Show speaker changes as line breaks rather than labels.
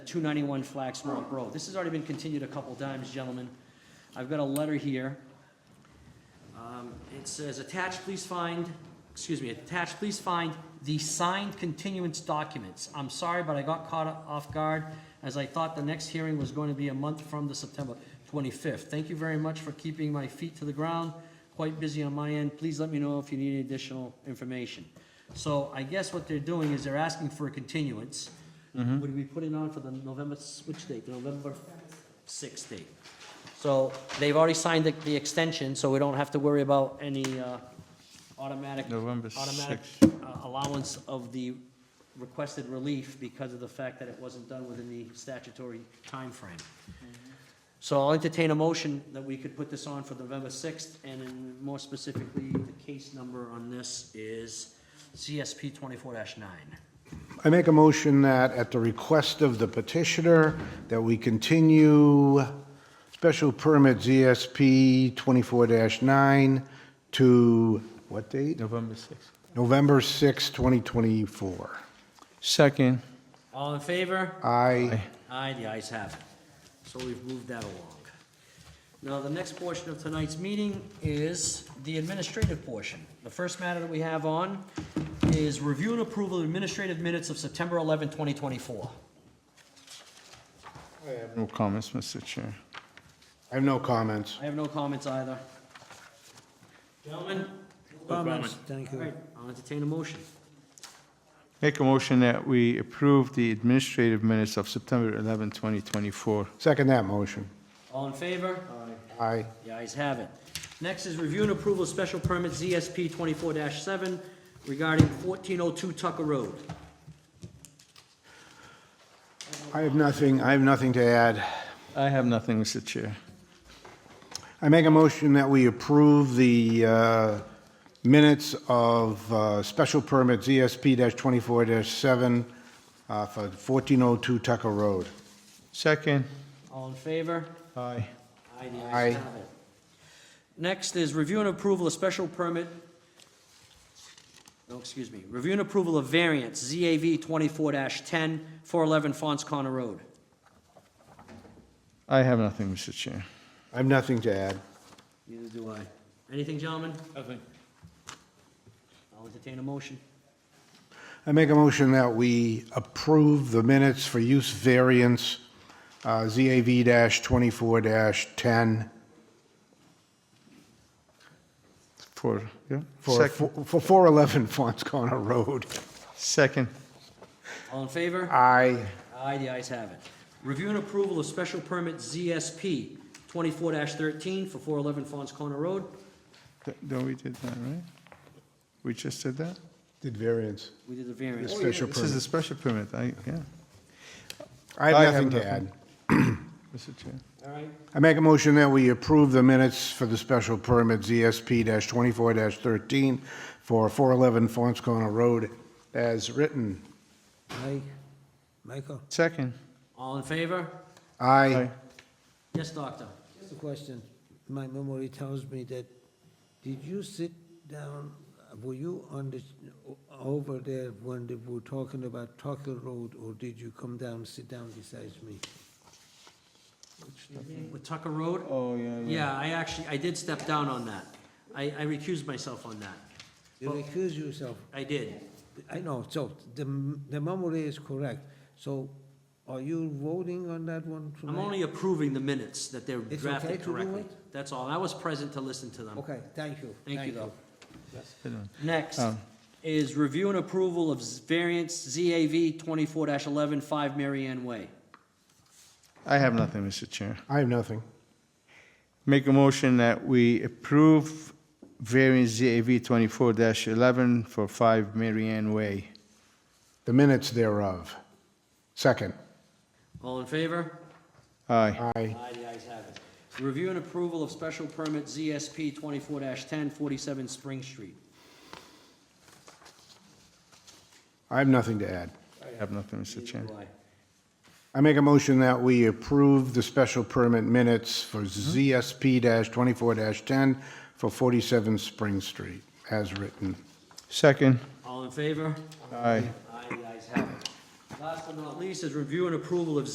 291 Flaxmore Road. This has already been continued a couple times, gentlemen. I've got a letter here. Um, It says, attached, please find, excuse me, attached, please find the signed continuance documents. I'm sorry, but I got caught off guard as I thought the next hearing was going to be a month from the September 25th. Thank you very much for keeping my feet to the ground. Quite busy on my end. Please let me know if you need any additional information. So I guess what they're doing is they're asking for a continuance. Would we put it on for the November, s- which date? The November 6th date? So they've already signed the, the extension, so we don't have to worry about any uh, automatic,
November
automatic
6th.
uh, allowance of the requested relief because of the fact that it wasn't done within the statutory timeframe. So I'll entertain a motion that we could put this on for November 6th, and then more specifically, the case number on this is CSP 24-9.
I make a motion that at the request of the petitioner, that we continue special permit ZSP 24-9 to, what date?
November 6th.
November 6, 2024.
Second,
All in favor?
I,
Aye, the ayes have it. So we've moved that along. Now, the next portion of tonight's meeting is the administrative portion. The first matter that we have on is review and approval of administrative minutes of September 11, 2024.
no comments, Mr. Chair.
I have no comments.
I have no comments either. Gentlemen?
Comments, thank
All
you.
right, I'll entertain a motion.
Make a motion that we approve the administrative minutes of September 11, 2024.
Second that motion.
All in favor?
Aye.
The ayes have it. Next is review and approval of special permit ZSP 24-7 regarding 1402 Tucker Road.
I have nothing, I have nothing to add.
I have nothing, Mr. Chair.
I make a motion that we approve the uh, minutes of uh, special permit ZSP-24-7 uh, for 1402 Tucker Road.
Second,
All in favor?
aye.
Aye, the
Aye.
ayes have it. Next is review and approval of special permit, no, excuse me, review and approval of variance, ZAV 24-10, 411 Fons Connor Road.
I have nothing, Mr. Chair.
I have nothing to add.
Neither do I. Anything, gentlemen?
Nothing.
I'll entertain a motion.
I make a motion that we approve the minutes for use variance uh, ZAV-24-10
For, yeah?
for
Second.
for 411 Fons Connor Road.
Second,
All in favor?
Aye.
Aye, the ayes have it. Review and approval of special permit ZSP 24-13 for 411 Fons Connor Road.
Th- no, we did that, right? We just did that?
Did variance.
We did the
The
variance.
special
This is a
permit.
special permit, I, yeah,
I
I
have
have
nothing to
nothing.
add.
Mr. Chair.
All right,
I make a motion that we approve the minutes for the special permit ZSP-24-13 for 411 Fons Corner Road as written.
Aye. Michael,
Second,
all in favor?
Aye.
aye.
Yes, doctor?
just a question. My memory tells me that, did you sit down, were you on the, over there when they were talking about Tucker Road, or did you come down, sit down beside me?
With Tucker Road?
Oh, yeah,
Yeah, I actually, I did step down on that. I, I recused myself on that.
You recuse yourself.
I did.
I know, so the, the memory is correct. So are you voting on that one tonight?
I'm only approving the minutes that they're
It's okay
drafted
to do
correctly. That's all. I was present to listen to them.
Okay, thank you.
Thank you, though.
Good one.
Next
Um,
is review and approval of variance ZAV 24-11, 5 Mary Ann Way.
I have nothing, Mr. Chair.
I have nothing.
Make a motion that we approve variance ZAV 24-11 for 5 Marianne Way.
The minutes thereof. Second.
All in favor?
Aye.
Aye.
Aye, the ayes have it. Review and approval of special permit ZSP 24-10, 47 Spring Street.
I have nothing to add.
I have nothing, Mr. Chair.
Neither do I.
I make a motion that we approve the special permit minutes for ZSP-24-10 for 47 Spring Street as written.
Second.
All in favor?
Aye.
Aye, the ayes have it. Last but not least is review and approval of